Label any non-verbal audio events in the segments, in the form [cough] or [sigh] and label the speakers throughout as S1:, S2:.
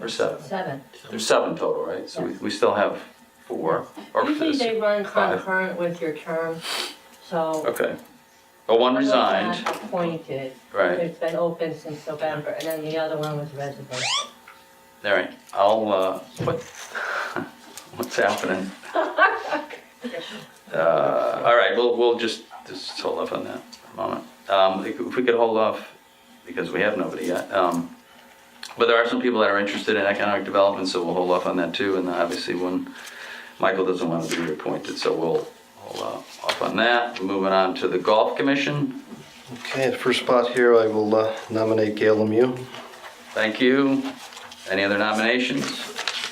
S1: or seven?
S2: seven.
S1: There's seven total, right? So we, we still have four. or
S2: Usually
S1: s-
S2: they run
S1: five.
S2: concurrent with your term, so.
S1: Okay. Well, one
S2: one's
S1: resigned,
S2: not Appointed,
S1: right,
S2: it's been open since November, and then the other one was resident.
S1: all right, I'll, uh, what, [laughs] what's happening? Uh, all right, we'll, we'll just, just hold off on that for a moment. Um, if if we could hold off, because we have nobody yet, um, but there are some people that are interested in economic development, so we'll hold off on that too, and obviously when Michael doesn't want to be reappointed, so we'll hold off off on that. Moving on to the golf commission.
S3: Okay, the first spot here, I will uh, nominate Gail Lemieux.
S1: Thank you. Any other nominations?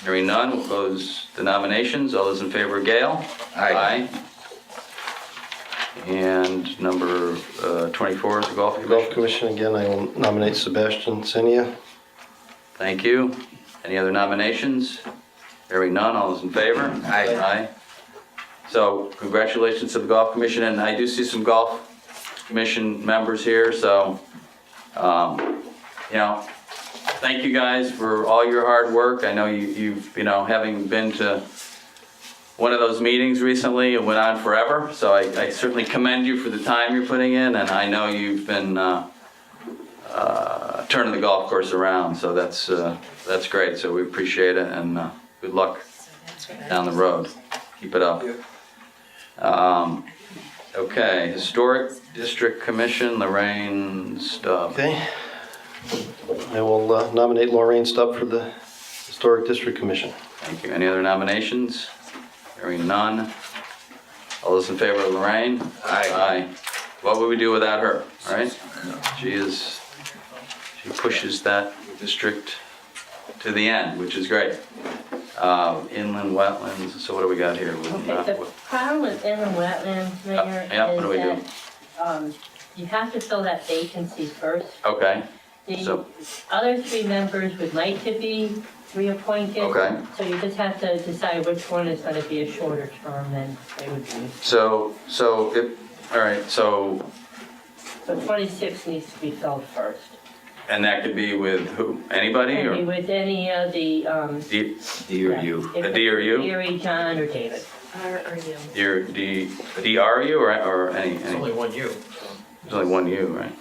S1: Hearing none, we'll close the nominations. All those in favor, Gail?
S4: Aye.
S1: Aye. And number uh, 24 is the Golf
S3: Golf
S1: Commission.
S3: Commission, again, I will nominate Sebastian Senia.
S1: Thank you. Any other nominations? Hearing none, all those in favor?
S4: Aye.
S1: Aye. So congratulations to the Golf Commission, and I do see some Golf Commission members here, so, um, you know, thank you guys for all your hard work. I know you, you've, you know, having been to one of those meetings recently, it went on forever, so I, I certainly commend you for the time you're putting in, and I know you've been, uh, uh, turning the golf course around, so that's, uh, that's great, so we appreciate it, and, uh, good luck down the road. Keep it up. Um, okay, Historic District Commission, Lorraine Stubb.
S3: Okay. I will uh, nominate Lorraine Stubb for the Historic District Commission.
S1: Thank you. Any other nominations? Hearing none. All those in favor of Lorraine?
S4: Aye.
S1: What would we do without her, all right? She is, she pushes that district to the end, which is great. Uh, inland wetlands, so what do we got here? We're not-
S2: Okay, the problem with inland wetlands, Mayor,
S1: Yeah, what do we do?
S2: is that, um, you have to fill that vacancy first.
S1: Okay,
S2: The
S1: So-
S2: other three members would like to be reappointed.
S1: Okay.
S2: So you just have to decide which one is gonna be a shorter term than they would be.
S1: so, so, if, all right, so
S2: So twenty-six needs to be filled first.
S1: And that could be with who? Anybody
S2: Maybe
S1: or?
S2: with any of the, um.
S1: D,
S4: Dear you.
S2: if
S1: A D or U?
S2: Deary, John, or David.
S5: Or are you?
S1: your, D, DRU or, or any,
S6: It's
S1: any?
S6: only one you.
S1: There's only one U, right?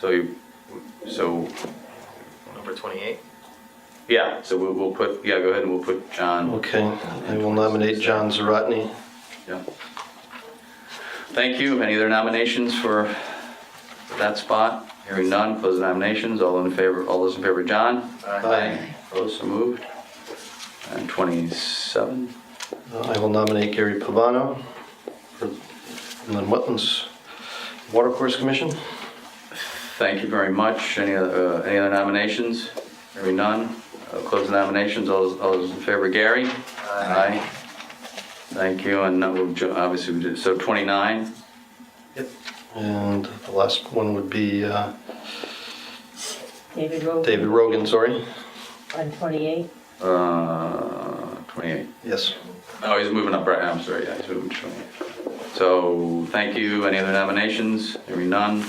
S1: So you, so,
S6: Number 28.
S1: yeah, so we'll, we'll put, yeah, go ahead and we'll put John.
S3: Okay, I will nominate John Zaratni.
S1: Yeah. Thank you. Any other nominations for for that spot? Hearing none, close the nominations. All in favor, all those in favor, John?
S3: Aye.
S1: Opposed, so moved. And 27.
S3: Uh, I will nominate Gary Pavano for Inland Wetlands Watercourse Commission.
S1: Thank you very much. Any other, uh, any other nominations? Hearing none, I'll close the nominations. All those, all those in favor, Gary? Aye. Thank you, and that will, jo- obviously, we did, so 29,
S3: And the last one would be uh,
S2: David Rogan.
S3: David Rogan, sorry.
S2: On twenty-eight.
S1: uh, 28.
S3: Yes.
S1: Oh, he's moving up, right, I'm sorry, yeah, he's moving to 28. So, thank you. Any other nominations? Hearing none.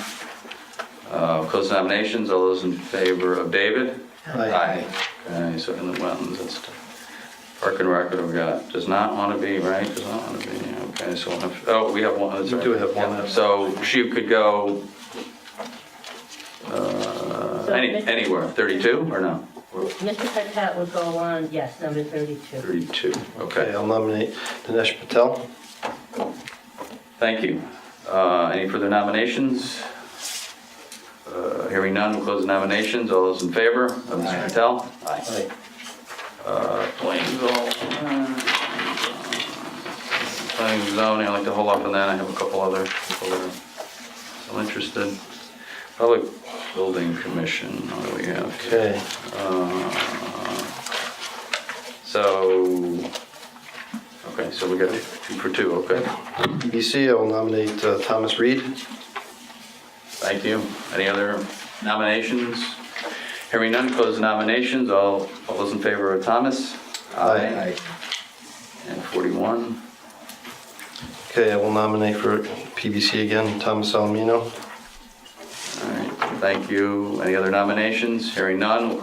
S1: Uh, Close the nominations. All those in favor of David?
S4: Aye.
S1: Okay, so inland wetlands, that's, park and rec, we got, does not want to be, right, does not want to be, yeah, okay, so we'll have, oh, we have one, that's
S3: We
S1: right.
S3: do have one.
S1: Yeah, So she could go, uh,
S2: So
S1: any,
S2: Mr.
S1: anywhere, 32 or no?
S2: Mr. Patat would go on, yes, number thirty-two.
S1: 32,
S3: Okay,
S1: okay,
S3: I'll nominate Dinesh Patel.
S1: thank you. Uh, Any further nominations? Uh, Hearing none, we'll close the nominations, all those in favor of Mr. Patel? Aye. Uh, Planning zone. Planning zoning, I'd like to hold off on that, I have a couple other people that are still interested. Public Building Commission, what do we have? here?
S3: Okay.
S1: So, okay, so we got two for two, okay.
S3: EBC, I will nominate uh, Thomas Reed.
S1: Thank you. Any other nominations? Hearing none, close the nominations, all, all those in favor of Thomas?
S3: Aye.
S1: And 41.
S3: Okay, I will nominate for PBC again, Thomas Alomino.
S1: All right, thank you. Any other nominations? Hearing none, we'll